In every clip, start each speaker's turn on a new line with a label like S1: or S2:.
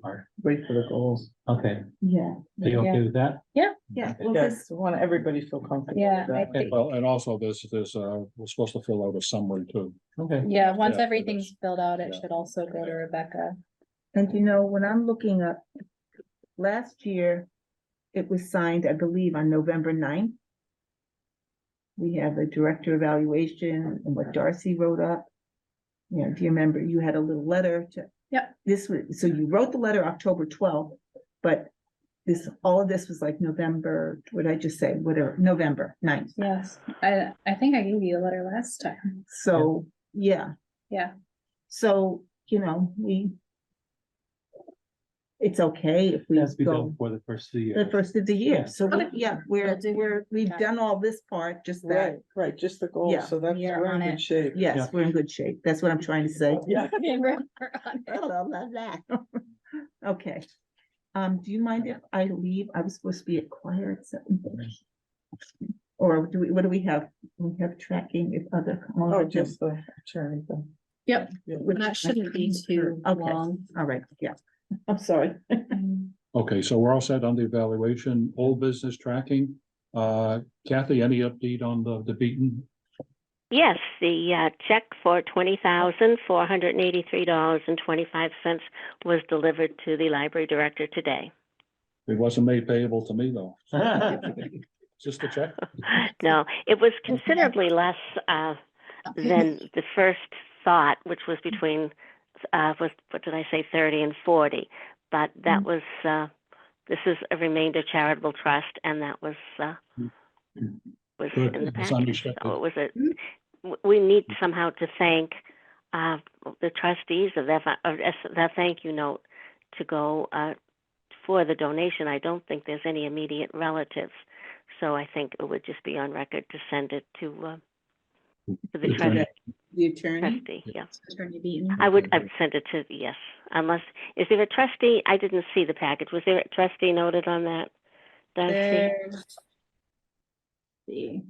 S1: part.
S2: Wait for the goals.
S1: Okay,
S3: Yeah.
S1: are you okay with that?
S3: Yeah.
S2: Well,
S1: Yeah.
S2: this want everybody to feel comfortable.
S4: Yeah,
S2: with that.
S4: I think,
S5: Well, and also this, this, uh, we're supposed to fill out a summary too.
S1: Okay,
S4: yeah, once
S5: Yeah, it
S4: everything's
S5: is.
S4: filled out, it
S5: Yeah.
S4: should also go to Rebecca.
S3: And you know, when I'm looking up, last year, it was signed, I believe, on November 9th. We have a director evaluation and what Darcy wrote up. You know, do you remember you had a little letter to?
S4: Yep.
S3: This was, so you wrote the letter October twelfth, but this, all of this was like November, what did I just say, whatever, November 9th.
S4: Yes, I, I think I gave you a letter last time.
S3: So, yeah.
S4: Yeah.
S3: So, you know, we. It's okay if we
S1: that's
S3: go
S1: before for the first two years.
S3: the first of the
S1: Yeah.
S3: year, so, we-
S4: Okay.
S3: yeah, we're,
S4: We'll do
S3: we're, we've
S4: that.
S3: done all this part, just
S2: Right,
S3: that,
S2: right, just the
S3: Yeah,
S2: goals, so that's,
S4: we are
S2: we're
S4: on
S2: in
S4: it.
S2: good shape.
S1: Yeah.
S3: yes, we're in good shape, that's what I'm trying to say.
S2: Oh, Yeah.
S4: We're on
S3: I
S4: it.
S3: love that. Okay, um, do you mind if I leave, I was supposed to be at choir at seven thirty. Or do we, what do we have, we have tracking if other.
S2: Oh, just the attorney thing.
S3: Which-
S4: That shouldn't be too
S3: Okay.
S4: long.
S3: All right, yeah, I'm sorry.
S5: Okay, so we're all set on the evaluation, old business tracking. Uh, Kathy, any update on the, the beaten?
S6: Yes, the uh, check for twenty thousand four hundred and eighty-three dollars and twenty-five cents was delivered to the library director today.
S5: It wasn't made payable to me though. Just a check.
S6: No, it was considerably less uh, than the first thought, which was between uh, was what did I say, thirty and forty. But that was uh, this is a remainder charitable trust, and that was uh, was Mm.
S5: Good,
S6: in the
S5: it's
S6: package.
S5: unexpected.
S6: So it was a w- we need somehow to thank uh, the trustees of that of that thank you note to go uh, for the donation. I don't think there's any immediate relatives. So I think it would just be on record to send it to, uh, to the
S5: Yes, I-
S6: trust-
S3: The attorney,
S6: trustee, yeah.
S4: Attorney Beaton.
S6: I would, I would send it to, yes, unless, is there a trustee? I didn't see the package. Was there a trustee noted on that? Darcy?
S4: There's. See.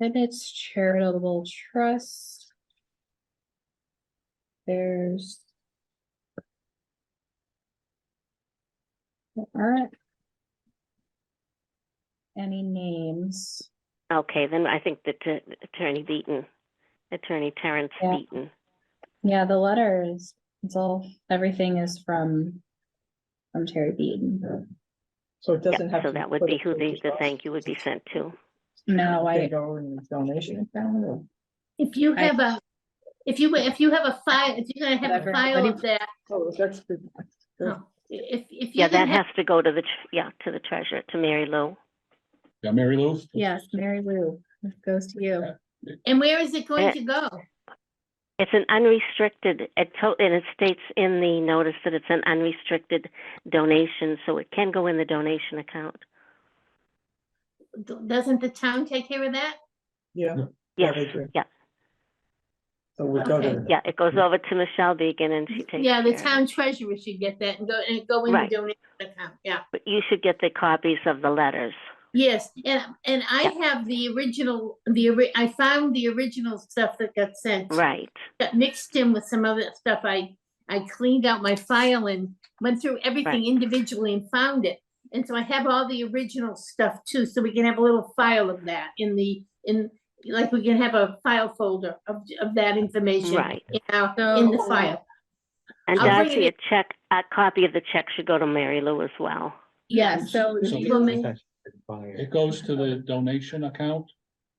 S4: And it's charitable trust. There's. There aren't. Any names,
S6: Okay, then I think that uh, Attorney Beaton, Attorney Terrence
S4: Yeah.
S6: Beaton.
S4: yeah, the letter is, it's all, everything is from. From Terry Beaton,
S2: So it
S6: Yeah,
S2: doesn't have to.
S6: So that would
S2: put
S6: be
S2: it
S6: who the,
S2: through
S6: the
S2: us.
S6: thank you would be sent to.
S4: no,
S2: They
S4: I,
S2: go in the donation account or?
S7: If you
S4: I-
S7: have a, if you, if you have a file, if you're gonna have a
S4: Whatever.
S7: file of that,
S2: Oh, that's good.
S7: no, if, if
S6: Yeah,
S7: you're
S6: that
S7: gonna
S6: has
S7: have,
S6: to go to the, tr- yeah, to the treasurer, to Mary Lou.
S5: Yeah, Mary Lou?
S4: yes, Mary Lou, this goes to you.
S7: and where is it going
S6: that-
S7: to go?
S6: It's an unrestricted, it to, and it states in the notice that it's an unrestricted donation, so it can go in the donation account.
S7: D- Doesn't the town take care of that?
S2: Yeah.
S6: Yes,
S2: they do.
S6: yeah.
S2: So we go
S7: Okay.
S2: to.
S6: yeah, it goes over to Michelle Beegan and she takes
S7: Yeah, the
S6: care of it.
S7: town treasurer should get that and go, and go in the
S6: Right.
S7: donation account, yeah.
S6: But you should get the copies of the letters.
S7: Yes, and, and I have the original, the, ori- I found the original stuff that got sent.
S6: Right,
S7: Got mixed in with some other stuff. I, I cleaned out my file and went through everything
S6: Right.
S7: individually and found it. And so I have all the original stuff too, so we can have a little file of that in the, in, like, we can have a file folder of, of that information.
S6: right.
S7: In our- in the
S4: So-
S7: file.
S6: And
S7: I'll bring
S6: Darcy, a
S7: it
S6: check, a copy of the check should go to Mary Lou as well.
S4: Yeah, so
S5: So-
S4: do you-
S7: Well, may-
S5: It goes to the donation account?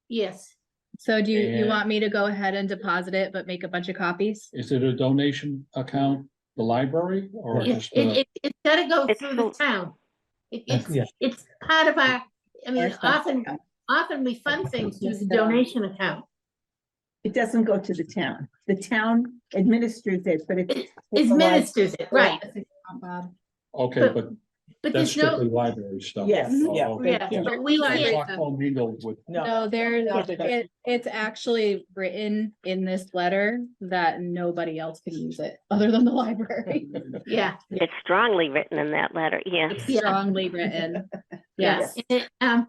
S7: Yes,
S4: So do you, you
S5: And-
S4: want me to go ahead and deposit it, but make a bunch of copies?
S5: Is it a donation account, the library or
S7: it,
S5: just? uh,
S7: it, it's gotta go
S6: It's
S7: through the
S6: cool.
S7: town. It-
S1: That's- yeah.
S7: It's, it's part of our, I mean,
S4: Ours does.
S7: often, often we fund things through the
S4: Yes, no.
S7: donation account.
S3: it doesn't go to the town, the town administers it, but it.
S7: It ministers it, right.
S4: Bob.
S5: Okay,
S7: but-
S5: but
S7: But
S5: that's
S7: there's no,
S5: strictly library stuff.
S2: Yes,
S5: Oh,
S2: yeah.
S5: okay.
S7: yeah,
S2: Yeah.
S7: but we
S5: I
S7: like.
S5: thought commingled with-
S4: No, there,
S2: Yeah, they got-
S4: it, it's actually written in this letter that nobody else can use it, other than the library.
S7: Yeah,
S6: It's strongly written in that letter, yes.
S4: It's
S7: Yeah.
S4: strongly written,
S7: yeah.
S4: yes.
S7: And, Um,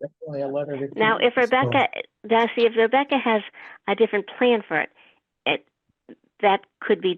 S2: Definitely a letter. to-
S6: Now, if Rebecca, Darcy, if Rebecca has a different plan for it, it, that could be